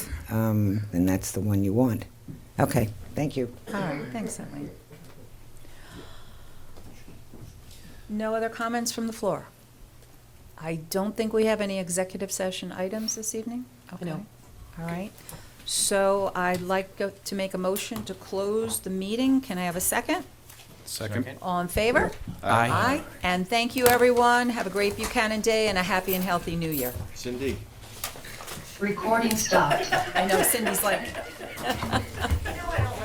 um, then that's the one you want. Okay, thank you. All right, thanks, Emily. No other comments from the floor? I don't think we have any executive session items this evening? Okay. No. All right. So I'd like go- to make a motion to close the meeting. Can I have a second? Second. All in favor? Aye. Aye. And thank you, everyone. Have a great Buchanan Day and a happy and healthy New Year. Cindy. Recording stopped. I know Cindy's like,